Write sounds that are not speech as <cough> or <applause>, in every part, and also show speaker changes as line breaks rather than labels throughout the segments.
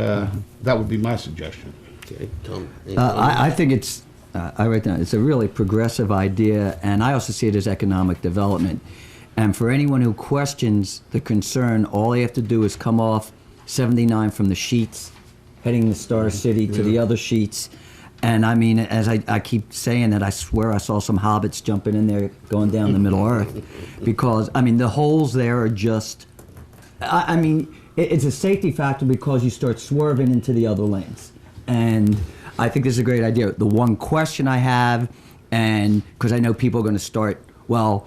Uh, That would be my suggestion.
Okay, Tom.
Uh, I, I think it's, uh, I write down, it's a really progressive idea, and I also see it as economic development. And for anyone who questions the concern, all they have to do is come off 79 from the sheets, heading the Star City to the other sheets. And I mean, as I, I keep saying that, I swear I saw some hobbits jumping in there going down the Middle Earth. Because, I mean, the holes there are just I, I mean, it, it's a safety factor because you start swerving into the other lanes. And I think this is a great idea. The one question I have, and because I know people are going to start, well,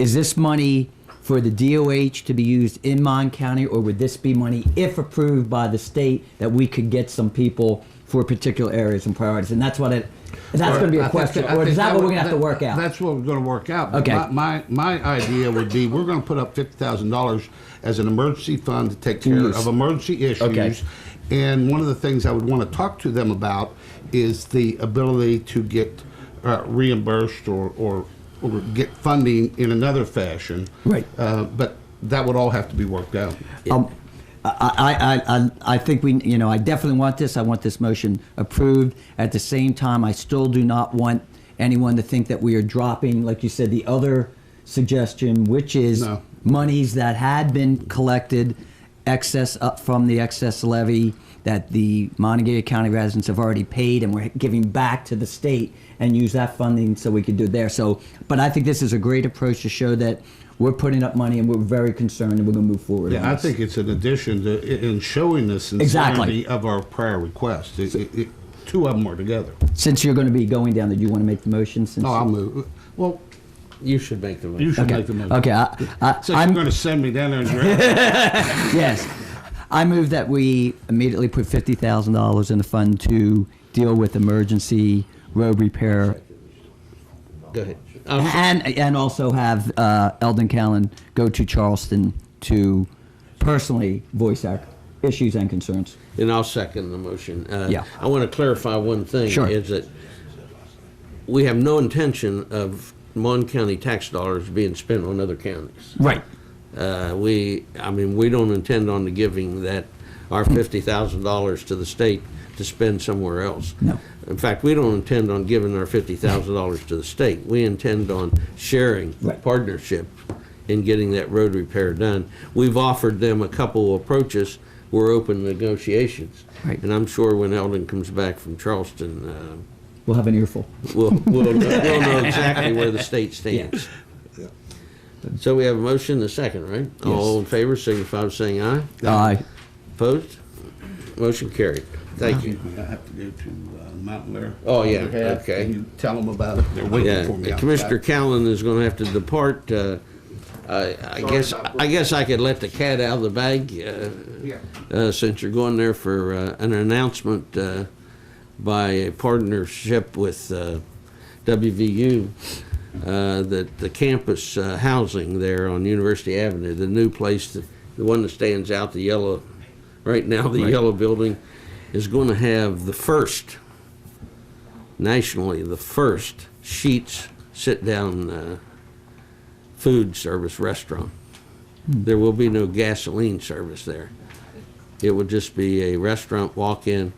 is this money for the DOH to be used in Mon County, or would this be money, if approved by the state, that we could get some people for particular areas and priorities? And that's what it. That's going to be
I think-
a question,
I
or
think
is that what we're
would-
going to have to
that-
work out?
That's what we're going to work out.
Okay.
My- My, my idea would be, we're going to put up fifty thousand dollars as an emergency fund to take care
Use.
of emergency
Okay.
issues. And one of the things I would want to talk to them about is the ability to get uh, reimbursed or, or, or get funding in another fashion.
Right.
Uh, But that would all have to be worked out.
Um, I, I, I, I think we, you know, I definitely want this. I want this motion approved. At the same time, I still do not want anyone to think that we are dropping, like you said, the other suggestion, which is
No.
monies that had been collected excess up from the excess levy that the Montague County residents have already paid and we're giving back to the state and use that funding so we could do it there. So, but I think this is a great approach to show that we're putting up money and we're very concerned and we're going to move forward. on
Yeah, I
this.
think it's an addition to, i- in showing the
Exactly.
sincerity of our prior request. It- it- it- Two of them were together.
Since you're going to be going down there, do you want to make the motion? Since
No, I'll move. Well,
You should make the motion.
you should
okay.
make the motion.
Okay. I, I,
So
I'm
you're going to send me down there and
yes. I move that we immediately put fifty thousand dollars in the fund to deal with emergency road repair,
Go ahead. Uh,
and and also have uh, Eldon Callan go to Charleston to personally voice our issues and concerns.
And I'll second the motion. Uh,
Yeah.
I want to clarify one thing.
Sure.
Is that we have no intention of Mon County tax dollars being spent on other counties.
Right.
Uh, We, I mean, we don't intend on giving that, our $50,000 to the state to spend somewhere else.
No.
In fact, we don't intend on giving our $50,000 to the state. We intend on sharing,
Right.
partnership in getting that road repair done. We've offered them a couple approaches. We're open to negotiations.
Right.
And I'm sure when Eldon comes back from Charleston, uh,
We'll have an earful.
we'll, we'll, we'll know exactly where the state stands. So we have a motion and a second, right? All in favor, signify by saying aye.
Aye.
Opposed? Motion carried. <laughs> Thank you.
I have to go to uh, Mountain Lair.
Oh, yeah,
Overhead,
okay.
and you tell them about it. They're
Yeah,
waiting for me.
Commissioner
outside.
Callen is gonna have to depart. uh, I I guess, I guess I could let the cat out of the bag, uh,
Yeah.
uh, since you're going there for uh, an announcement uh, by a partnership with uh, WVU, uh, that the campus uh, housing there on University Avenue, the new place, the the one that stands out, the yellow, right now, the yellow building, is going to have the first, nationally, the first Sheets sit-down uh, food service restaurant. There will be no gasoline service there. It would just be a restaurant walk-in,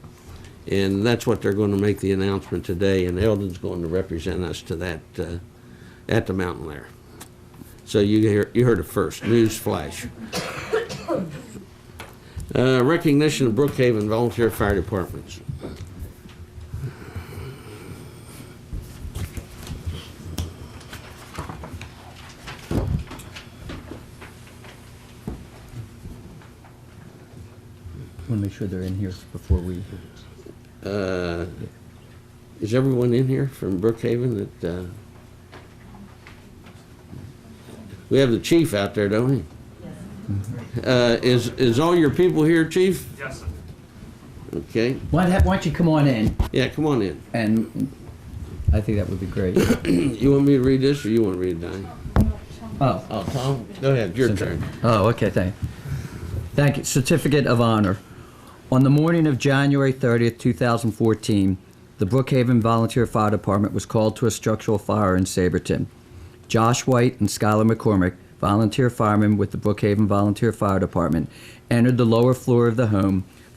and that's what they're going to make the announcement today, and Eldon's going to represent us to that, uh, at the Mountain Lair. So you hear, you heard it first, news flash. Uh, Recognition of Brookhaven Volunteer Fire Departments.
want to make sure they're in here before we.
Uh, Is everyone in here from Brookhaven that, uh, we have the chief out there, don't we? Uh, Is, is all your people here, chief?
Yes, sir.
Okay,
Why don't why don't you come on in?
yeah, come on in.
And I think that would be great.
You want me to read this, or you want to read it, Donnie?
Oh.
Oh, Tom, go ahead, your turn.
Oh, okay, thank you. Thank you. Certificate of Honor. On the morning of January 30th, 2014, the Brookhaven Volunteer Fire Department was called to a structural fire in Saberton. Josh White and Skylar McCormick, volunteer firemen with the Brookhaven Volunteer Fire Department, entered the lower floor of the home